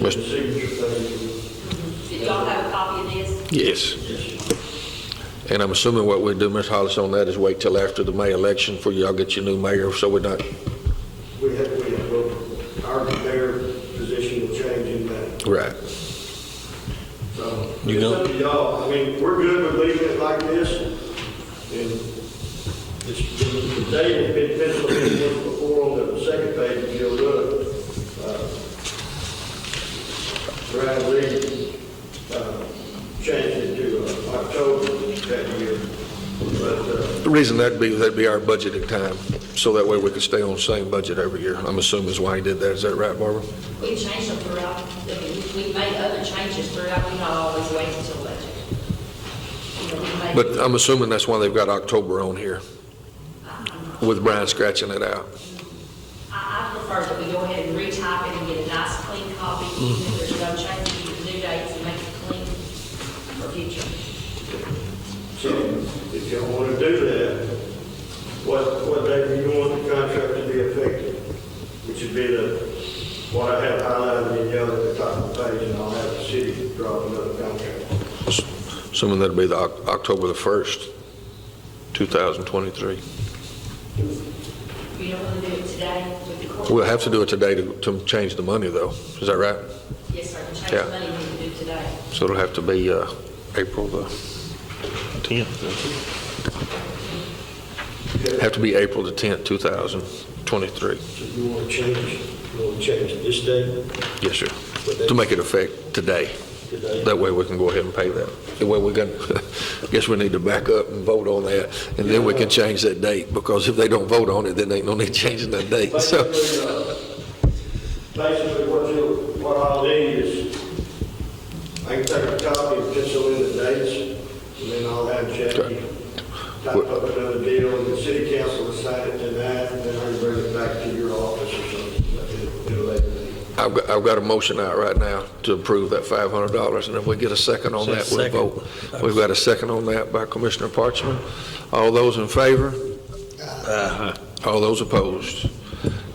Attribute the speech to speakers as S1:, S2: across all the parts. S1: Mr.
S2: Did y'all have a copy of this?
S1: Yes. And I'm assuming what we do, Ms. Hollis, on that is wait till after the May election for y'all get your new mayor, so we're not,
S3: We have, we have, well, our, their position will change in that,
S1: right.
S3: so.
S1: You
S3: It's
S1: know-
S3: up to y'all, I mean, we're good with leaving it like this, and it's, the date has been penciled in once before on the second page of your book. uh, Brad Lee, uh, changed it to uh, October that year, but, uh,
S1: The reason that'd be, that'd be our budgeting time, so that way we could stay on the same budget every year. I'm assuming is why he did that. Is that right, Barbara?
S2: We changed them throughout, I mean, we- we made other changes throughout, we not always wait until budget. You know, we made-
S1: But I'm assuming that's why they've got October on here, with Brian scratching it out.
S2: I, I prefer that we go ahead and retype it and get a nice clean copy, even
S1: Mm-hmm.
S2: if there's no changes, you can do dates and make it clean for future.
S3: So if y'all want to do that, what, what day do you want the contract to be effective? Which would be the, what I have highlighted in yellow at the top of the page, and I'll have the city draw another contract.
S1: Assuming that'd be the Oc- October the 1st, 2023.
S2: You don't want to do it today with the court?
S1: We'll have to do it today to, to change the money, though. Is that right?
S2: Yes, sir, we change
S1: Yeah.
S2: the money, we can do it today.
S1: So it'll have to be uh, April the 10th. Have to be April the 10th, 2023.
S3: So you want to change, you want to change this day
S1: Yes, sir. To make it effect today. That way we can go ahead and pay that. The way we're going, I guess we need to back up and vote on that, and then we can change that date, because if they don't vote on it, then ain't no need changing that date, so.
S3: Basically, uh, basically what you, what I'll need is, I can take a copy and pencil in the dates, and then I'll have Jackie type up another deal, and the city council will sign it tonight, and then I can bring it back to your office or something, like it- it'll later be.
S1: I've got, I've got a motion out right now to approve that $500, and if we get a second on that, we'll vote. We've got a second on that by Commissioner Parchman. All those in favor? All those opposed?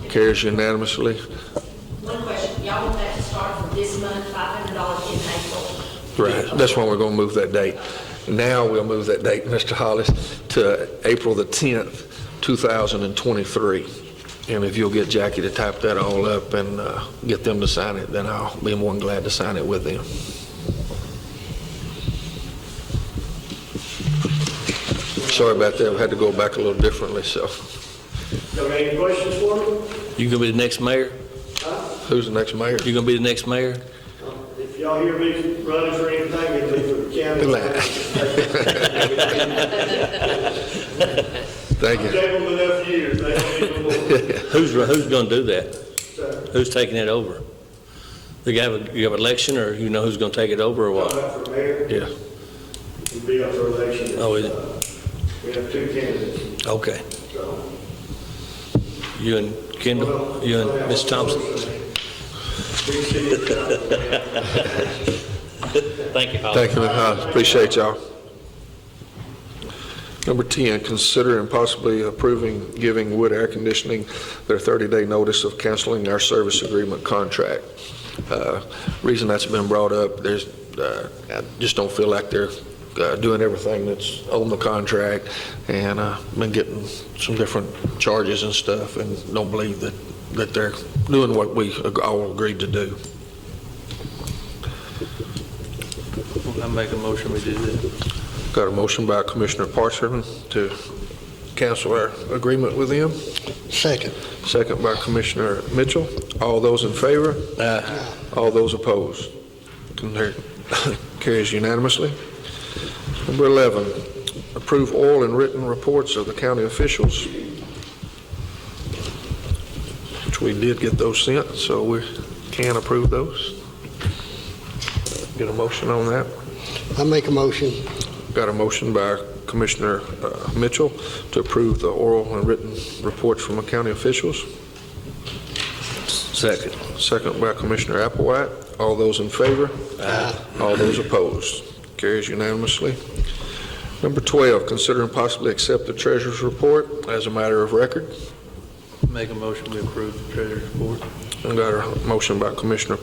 S1: Carries unanimously.
S2: One question, y'all want that to start from this month, five hundred dollars in April?
S1: Right, that's why we're going to move that date. Now, we'll move that date, Mr. Hollis, to April the 10th, 2023. And if you'll get Jackie to type that all up and uh, get them to sign it, then I'll be more than glad to sign it with them. Sorry about that, we had to go back a little differently, so.
S3: Got any questions for me?
S4: You gonna be the next mayor?
S1: Who's the next mayor?
S4: You gonna be the next mayor?
S3: Uh, If y'all hear me running for anything, it'll be for the county.
S1: Thank
S3: I've
S1: you.
S3: gave them enough years, they don't need no more.
S4: Who's, who's gonna do that?
S3: So,
S4: Who's taking it over? You have, you have election, or you know who's gonna take it over, or
S3: I'm
S4: what?
S3: up for mayor,
S1: Yeah.
S3: it'll be up for election.
S4: Oh, is it?
S3: We have two candidates,
S4: Okay.
S3: so.
S4: You and Kendall, you and Miss Thompson? Thank you, Holly.
S1: Thank you, Ms. Hines. Appreciate y'all. Number 10, consider and possibly approving giving Wood Air Conditioning their 30-day notice of canceling our service agreement contract. Uh, Reason that's been brought up, there's, uh, I just don't feel like they're uh, doing everything that's on the contract, and uh, been getting some different charges and stuff, and don't believe that, that they're doing what we all agreed to do.
S5: I make a motion, we do that.
S1: Got a motion by Commissioner Parchman to cancel our agreement with them,
S6: Second.
S1: second by Commissioner Mitchell. All those in favor? All those opposed? Can there- Carries unanimously. Number 11, approve oral and written reports of the county officials, which we did get those sent, so we can approve those. Get a motion on that?
S6: I make a motion.
S1: Got a motion by Commissioner uh, Mitchell to approve the oral and written reports from the county officials.
S4: Second.
S1: Second by Commissioner Applewhite. All those in favor? All those opposed? Carries unanimously. Number 12, consider and possibly accept the treasurer's report as a matter of record.
S5: Make a motion, we approve the treasurer's report.
S1: Got a motion by Commissioner